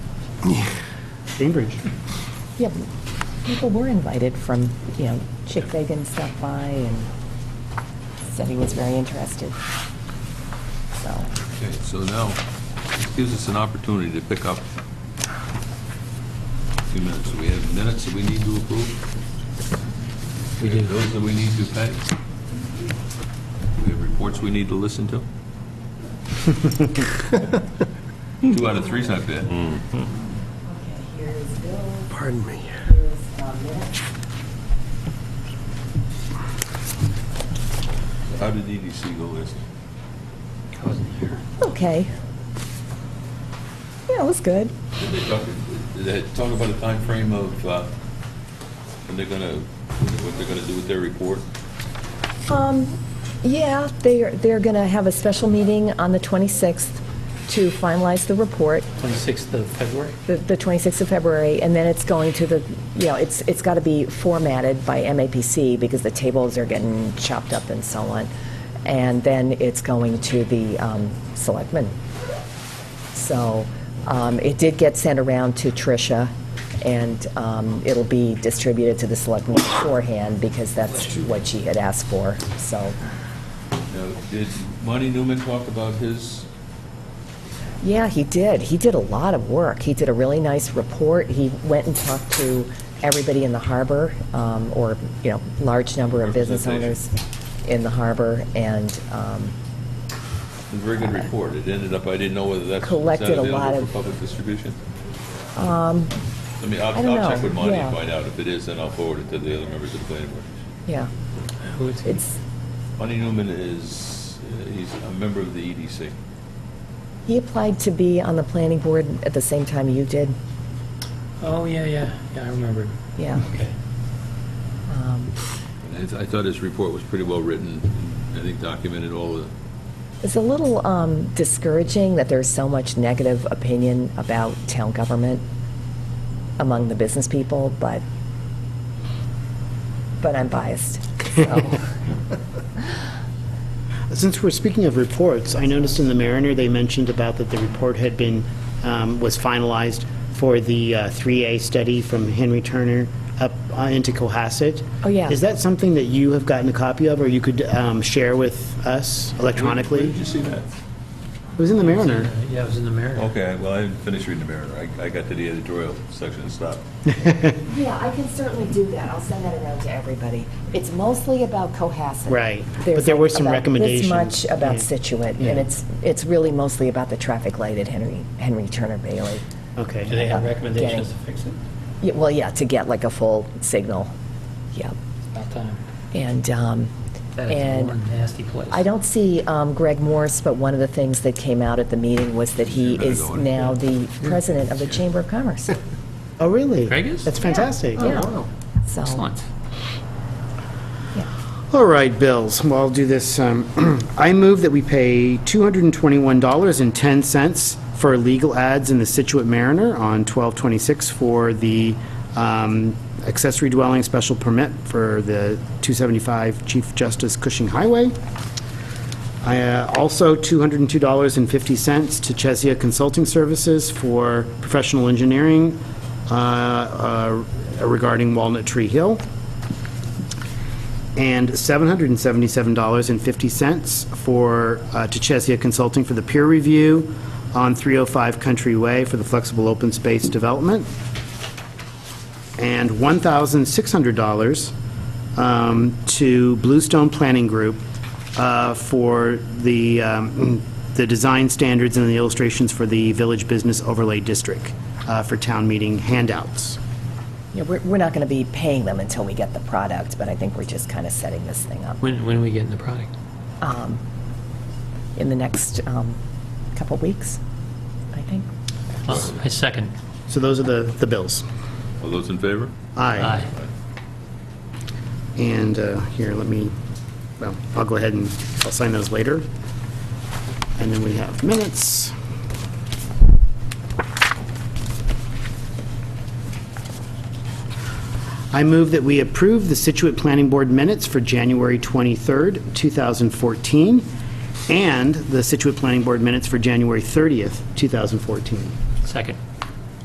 Cambridge. Yeah, but people were invited from, you know, Chick Fagan stopped by and said he was very interested. So, Okay, so now, this gives us an opportunity to pick up a few minutes. We have minutes that we need to approve. We have those that we need to pay. We have reports we need to listen to. Two out of three's not bad. Here's bills, Pardon me. here's uh, minutes. How did EDC go last? okay. Yeah, it was good. Did they talk, did they talk about a timeframe of uh, when they're gonna, what they're gonna do with their report? Um, yeah, they're, they're going to have a special meeting on the 26th to finalize the report, 26th of February? the the 26th of February, and then it's going to the, you know, it's, it's got to be formatted by MAPC because the tables are getting chopped up and so on. And then it's going to the um, selectmen. So um, it did get sent around to Tricia, and um, it'll be distributed to the selectmen beforehand because that's what she had asked for, so. Now, Did Monty Newman talk about his Yeah, he did. He did a lot of work. He did a really nice report. He went and talked to everybody in the harbor, um, or, you know, large number of business owners in the harbor, and um, A Very good report. It ended up, I didn't know whether that's. is that Collected a lot of- available Um, For public distribution? I mean, I'll, I don't I'll check know. with Monty Yeah. and find out. If it is, then I'll forward it to the other members of the planning board. yeah, Who is it? it's, Monty Newman is, uh, he's a member of the E EDC. he applied to be on the planning board at the same time you did. Oh, yeah, yeah, yeah, I remember. Yeah. Okay. Um, And I th- I thought his report was pretty well written. I think documented all the, It's a little um, discouraging that there's so much negative opinion about town government among the business people, but, but I'm biased, so. Since we're speaking of reports, I noticed in the Mariner, they mentioned about that the report had been, um, was finalized for the uh, 3A study from Henry Turner up uh, into Cohasset. Oh, yeah. Is that something that you have gotten a copy of, or you could um, share with us Where electronically? Did you see that? It was in the Mariner. Yeah, it was in the Mariner. Okay, well, I didn't finish reading the Mariner. I, I got to the editorial section and stopped. Yeah, I can certainly do that. I'll send that around to everybody. It's mostly about Cohasset. Right. But There's there were like some about recommendations. This much about Yeah. Situate, Yeah. and it's, it's really mostly about the traffic light at Henry, Henry Turner Bailey. Okay. Do they have recommendations to fix it? Yeah, Well, yeah, to get like a full signal, yeah. About time. And, um, That is one and nasty place. I don't see um, Greg Morse, but one of the things that came out at the meeting was that he better is go in. now the president of the Chamber of Commerce, Oh, really? Greg is? That's fantastic. Yeah. Oh, wow. so. Excellent. All right, bills. Well, I'll do this. um, I move that we pay $221.10 for legal ads in the Situate Mariner on 1226 for the um, accessory dwelling special permit for the 275 Chief Justice Cushing Highway. I, uh, Also, $202.50 to Chesia Consulting Services for professional engineering uh, uh, regarding Walnut Tree Hill and $777.50 for, uh, to Chesia Consulting for the peer review on 305 Country Way for the flexible open space development, and $1,600 um, to Bluestone Planning Group uh, for the, um, the design standards and the illustrations for the Village Business Overlay District uh, for town meeting handouts. Yeah, we're, we're not going to be paying them until we get the product, but I think we're just kind of setting this thing up When, when are we getting the product? in the next um, couple weeks, I think. Well, I second. So those are the, the bills. All those in favor? Aye. And uh, here, let me, well, I'll go ahead and I'll sign those later. And then we have minutes. I move that we approve the Situate Planning Board minutes for January 23rd, 2014, and the Situate Planning Board minutes for January 30th, 2014. Second.